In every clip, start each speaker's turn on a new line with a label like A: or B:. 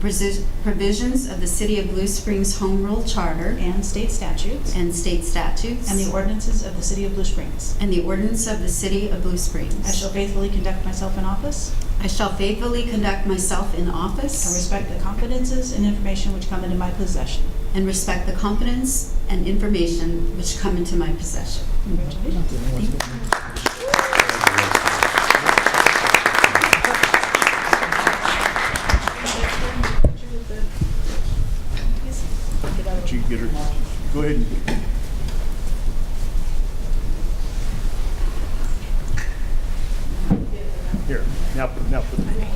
A: presi- provisions of the City of Blue Springs Home Rule Charter
B: and state statutes
A: and state statutes
B: and the ordinances of the City of Blue Springs.
A: and the ordinance of the City of Blue Springs.
B: I shall faithfully conduct myself in office
A: I shall faithfully conduct myself in
B: and
A: office
B: respect the confidences and information which come into my possession.
A: and respect the confidence and information which come into my possession.
B: Congratulations.
C: Did you get her? Go ahead and get her. Here, now, put- now put the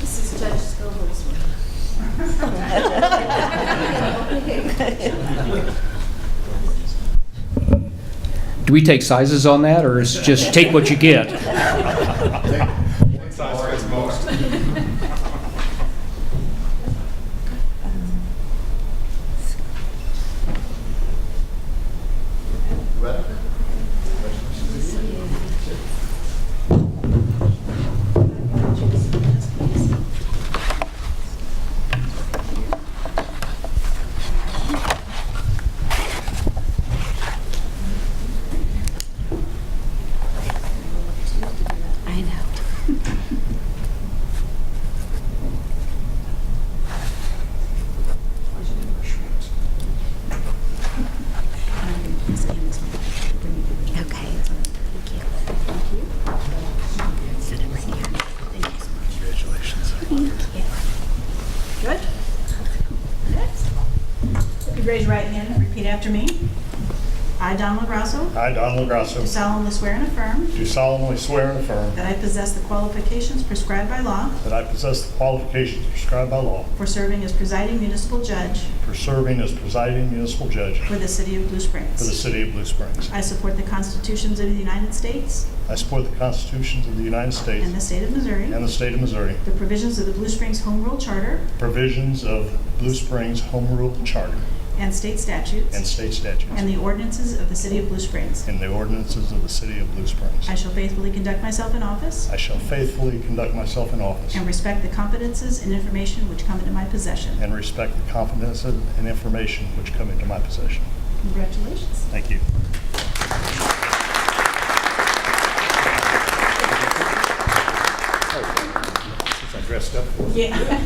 A: This is Judge Scobell's
D: Do we take sizes on that, or is it just take what you get?
A: I know. Okay.
C: Congratulations.
B: Good. Next. If you raise your right hand and repeat after me. I, Donald Rosso,
C: I, Donald Grasso,
B: do solemnly swear and affirm
C: do solemnly swear and affirm
B: that I possess the qualifications prescribed by law
C: that I possess the qualifications prescribed by law
B: for serving as presiding municipal judge
C: for serving as presiding municipal judge
B: for the City of Blue
C: for the
B: Springs.
C: city of Blue Springs.
B: I support the constitutions of the United States
C: I support the constitutions of the United States
B: and the state of Missouri,
C: and the state of Missouri,
B: the provisions of the Blue Springs Home Rule Charter
C: provisions of Blue Springs Home Rule Charter
B: and state statutes,
C: and state statutes,
B: and the ordinances of the City of Blue Springs.
C: and the ordinances of the city of Blue Springs.
B: I shall faithfully conduct myself in office
C: I shall faithfully conduct myself in office
B: and respect the confidences and information which come into my possession.
C: and respect the confidence and information which come into my possession.
B: Congratulations.
C: Thank you. Since I dressed up for it.
B: Yeah.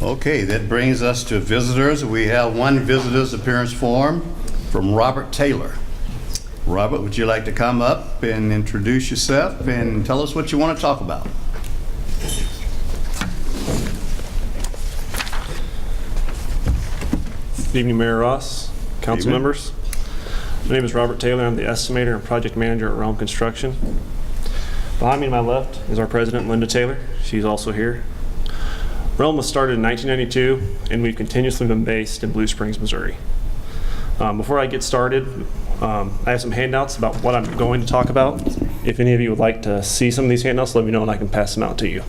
E: Okay, that brings us to visitors. We have one visitor's appearance form from Robert Taylor. Robert, would you like to come up and introduce yourself and tell us what you want to talk about?
F: Good evening, Mayor Ross, council
E: Evening.
F: members. My name is Robert Taylor. I'm the estimator and project manager at Realm Construction. Behind me to my left is our president, Linda Taylor. She's also here. Realm was started in 1992, and we've continuously been based in Blue Springs, Missouri. Um, Before I get started, um, I have some handouts about what I'm going to talk about. If any of you would like to see some of these handouts, let me know and I can pass them out to you.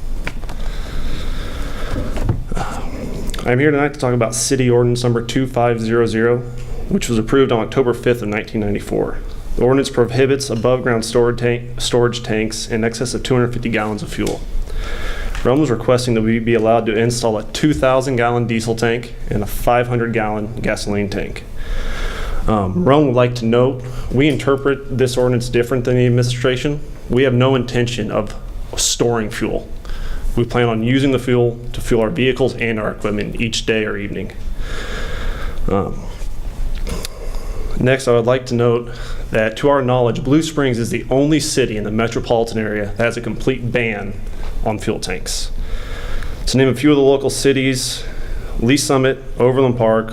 F: I'm here tonight to talk about City Ordinance Number 2500, which was approved on October 5th of 1994. The ordinance prohibits above-ground storage tank- storage tanks in excess of 250 gallons of fuel. Rome was requesting that we be allowed to install a 2,000-gallon diesel tank and a 500-gallon gasoline tank. Um, Rome would like to note, we interpret this ordinance different than the administration. We have no intention of storing fuel. We plan on using the fuel to fuel our vehicles and our equipment each day or evening. Um, Next, I would like to note that to our knowledge, Blue Springs is the only city in the metropolitan area that has a complete ban on fuel tanks. To name a few of the local cities, Lee Summit, Overland Park,